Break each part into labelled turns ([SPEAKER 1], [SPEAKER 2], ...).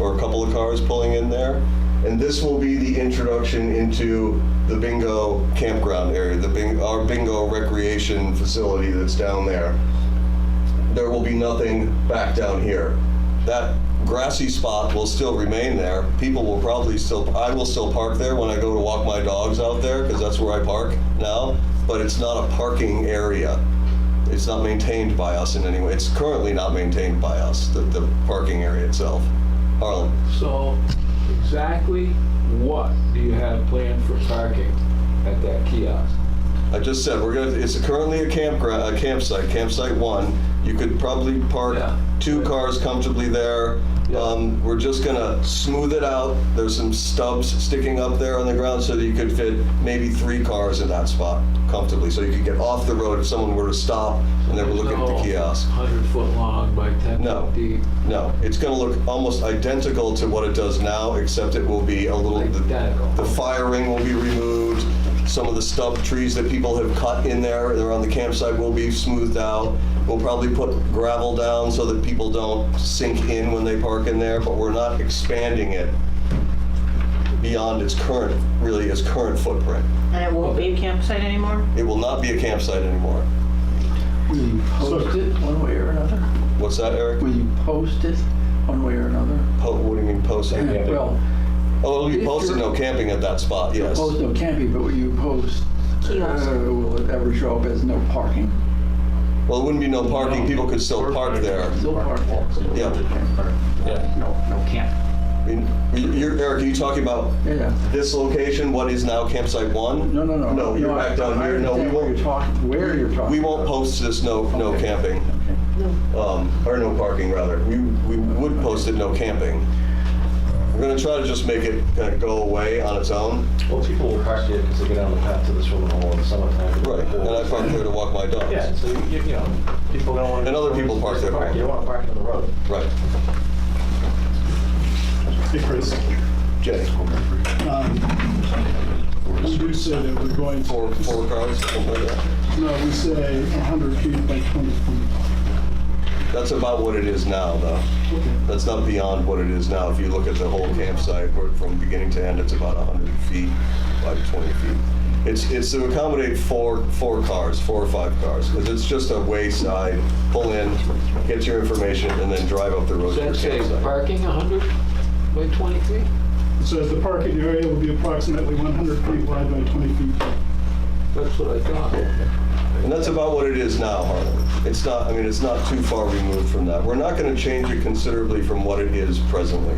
[SPEAKER 1] or a couple of cars pulling in there. And this will be the introduction into the bingo campground area, the bing, our bingo recreation facility that's down there. There will be nothing back down here. That grassy spot will still remain there. People will probably still, I will still park there when I go to walk my dogs out there, because that's where I park now, but it's not a parking area. It's not maintained by us in any way. It's currently not maintained by us, the, the parking area itself. Harlan?
[SPEAKER 2] So exactly what do you have planned for parking at that kiosk?
[SPEAKER 1] I just said, we're gonna, it's currently a campground, a campsite, campsite one. You could probably park
[SPEAKER 2] Yeah.
[SPEAKER 1] two cars comfortably there.
[SPEAKER 2] Yeah.
[SPEAKER 1] Um, we're just gonna smooth it out. There's some stubs sticking up there on the ground so that you could fit maybe three cars in that spot comfortably. So you could get off the road if someone were to stop and they were looking at the kiosk.
[SPEAKER 2] Hundred foot long by ten
[SPEAKER 1] No.
[SPEAKER 2] foot deep.
[SPEAKER 1] No, it's gonna look almost identical to what it does now, except it will be a little, the
[SPEAKER 2] Identical.
[SPEAKER 1] the firing will be removed, some of the stub trees that people have cut in there, they're on the campsite, will be smoothed out. We'll probably put gravel down so that people don't sink in when they park in there, but we're not expanding it beyond its current, really its current footprint.
[SPEAKER 3] And it won't be a campsite anymore?
[SPEAKER 1] It will not be a campsite anymore.
[SPEAKER 4] Will you post it one way or another?
[SPEAKER 1] What's that, Eric?
[SPEAKER 4] Will you post it one way or another?
[SPEAKER 1] Po- What do you mean post?
[SPEAKER 4] Well,
[SPEAKER 1] Oh, it'll be
[SPEAKER 4] if
[SPEAKER 1] posted,
[SPEAKER 4] you're-
[SPEAKER 1] no camping at that spot, yes.
[SPEAKER 4] post, no, can't be, but will you post?
[SPEAKER 3] Kiosk.
[SPEAKER 4] uh, Will it ever show up as no parking?
[SPEAKER 1] Well, it wouldn't be no parking, people could still park there.
[SPEAKER 4] No parking.
[SPEAKER 1] Yeah. Yeah.
[SPEAKER 5] No, no camp.
[SPEAKER 1] I mean, you- you're, Eric, are you talking about
[SPEAKER 4] Yeah.
[SPEAKER 1] this location, what is now campsite one?
[SPEAKER 4] No, no, no.
[SPEAKER 1] No, you're
[SPEAKER 4] I-
[SPEAKER 1] back down
[SPEAKER 4] I
[SPEAKER 1] here, no, we
[SPEAKER 4] understand where you're
[SPEAKER 1] won't,
[SPEAKER 4] talking, where you're talking.
[SPEAKER 1] we won't
[SPEAKER 4] about.
[SPEAKER 1] post this no, no
[SPEAKER 4] Okay.
[SPEAKER 1] camping,
[SPEAKER 4] Okay.
[SPEAKER 1] um, or no parking rather. We, we would post it no camping. We're gonna try to just make it kind of go away on its own.
[SPEAKER 6] Well, people will park there because they get on the path to the swimming hole in the summertime.
[SPEAKER 1] Right, and I park there to walk my
[SPEAKER 6] Yeah,
[SPEAKER 1] dogs.
[SPEAKER 6] so you, you know, people don't want to.
[SPEAKER 1] And other people park there.
[SPEAKER 6] You don't want to park on the road.
[SPEAKER 1] Right.
[SPEAKER 7] Um,
[SPEAKER 1] Jay,
[SPEAKER 7] We do say that we're going for,
[SPEAKER 1] four, four cars, something like that.
[SPEAKER 7] no, we say 100 feet by 20 feet.
[SPEAKER 1] That's about what it is now, though. That's not beyond what it is now. If you look at the whole campsite, where from beginning to end, it's about 100 feet by 20 feet. It's, it's to accommodate four, four cars, four or five cars, because it's just a wayside, pull in, get your information, and then drive up the road
[SPEAKER 2] Does
[SPEAKER 1] to
[SPEAKER 2] that
[SPEAKER 1] your
[SPEAKER 2] say
[SPEAKER 1] campsite.
[SPEAKER 2] parking hundred by twenty feet?
[SPEAKER 7] It says the parking area will be approximately 100 feet wide by 20 feet.
[SPEAKER 2] That's what I thought.
[SPEAKER 1] And that's about what it is now, Harlan. It's not, I mean, it's not too far removed from that. We're not going to change it considerably from what it is presently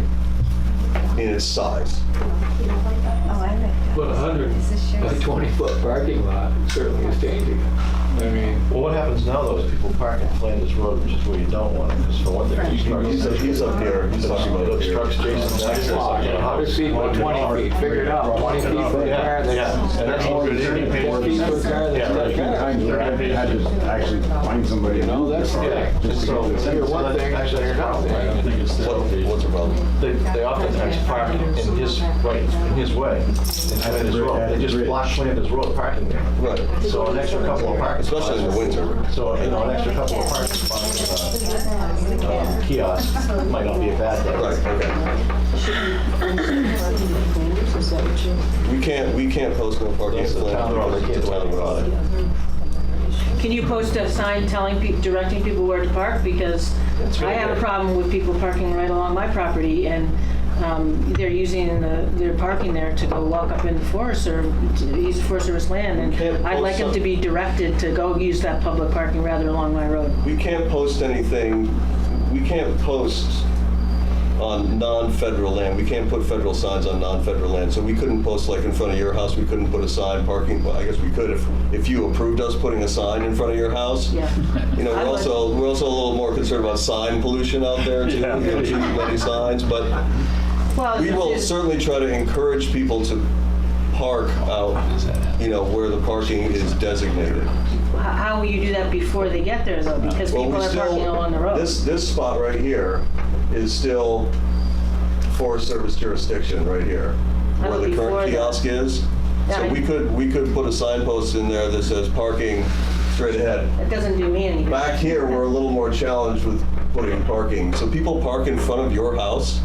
[SPEAKER 1] in its size.
[SPEAKER 8] Oh, I like
[SPEAKER 2] But hundred by twenty foot parking lot certainly is changing. I mean,
[SPEAKER 6] Well, what happens now though is people park in Flanders Road, which is where you don't want it, because for one thing.
[SPEAKER 1] He's up- he's up here, he's talking about up here.
[SPEAKER 6] Obstructs Jason's access.
[SPEAKER 2] hundred feet by twenty feet, figure it out, twenty feet for a
[SPEAKER 6] Yeah,
[SPEAKER 2] car that's.
[SPEAKER 6] yeah. And that's all it is.
[SPEAKER 2] Ten feet for a car
[SPEAKER 6] Yeah,
[SPEAKER 2] that's not a
[SPEAKER 6] right.
[SPEAKER 2] car.
[SPEAKER 5] I just actually find somebody.
[SPEAKER 2] You know, that's, yeah.
[SPEAKER 6] Just so-
[SPEAKER 2] You're one thing,
[SPEAKER 6] Actually,
[SPEAKER 2] you're another
[SPEAKER 6] that's a problem, right?
[SPEAKER 2] thing.
[SPEAKER 6] I think it's
[SPEAKER 1] What- What's the problem?
[SPEAKER 6] They, they oftentimes park in his, right, in his way, in Flanders Road. They just block Flanders Road parking there.
[SPEAKER 1] Right,
[SPEAKER 6] So an extra couple of parking. spots-
[SPEAKER 1] especially in the winter.
[SPEAKER 6] So, you know, an extra couple of parking spots, uh, uh, kiosks might not be a bad thing.
[SPEAKER 1] Right, okay. We can't, we can't post no parking.
[SPEAKER 6] That's the town road, they can't do anything about it.
[SPEAKER 3] Can you post a sign telling, peop- directing people where to park? Because I have a problem with people parking right along my property and um, they're using, the- they're parking there to go walk up in the forest or to use Forest Service land.
[SPEAKER 1] Can't
[SPEAKER 3] And I'd like them
[SPEAKER 1] post
[SPEAKER 3] to be directed to go use that public parking rather along my road.
[SPEAKER 1] We can't post anything, we can't post on non-federal land. We can't put federal signs on non-federal land. So we couldn't post like in front of your house, we couldn't put a sign parking, well, I guess we could if, if you approved us putting a sign in front of your house.
[SPEAKER 3] Yeah.
[SPEAKER 1] You know,
[SPEAKER 3] I
[SPEAKER 1] we're
[SPEAKER 3] would-
[SPEAKER 1] also, we're also a little more concerned about sign pollution out there too.
[SPEAKER 6] Yeah.
[SPEAKER 1] We have too many signs, but
[SPEAKER 3] Well,
[SPEAKER 1] We will
[SPEAKER 3] it's-
[SPEAKER 1] certainly try to encourage people to park out, you know, where the parking is designated.
[SPEAKER 3] How- How will you do that before they get there though? Because
[SPEAKER 1] Well,
[SPEAKER 3] people
[SPEAKER 1] we
[SPEAKER 3] are
[SPEAKER 1] still-
[SPEAKER 3] parking along the road.
[SPEAKER 1] This, this spot right here is still Forest Service jurisdiction right here, where
[SPEAKER 3] That would
[SPEAKER 1] the
[SPEAKER 3] be
[SPEAKER 1] current
[SPEAKER 3] Florida.
[SPEAKER 1] kiosk is.
[SPEAKER 3] Yeah,
[SPEAKER 1] So
[SPEAKER 3] I-
[SPEAKER 1] we could, we could put a signpost in there that says parking straight ahead.
[SPEAKER 3] It doesn't do me any good.
[SPEAKER 1] Back here, we're a little more challenged with putting parking. So people park in front of your house,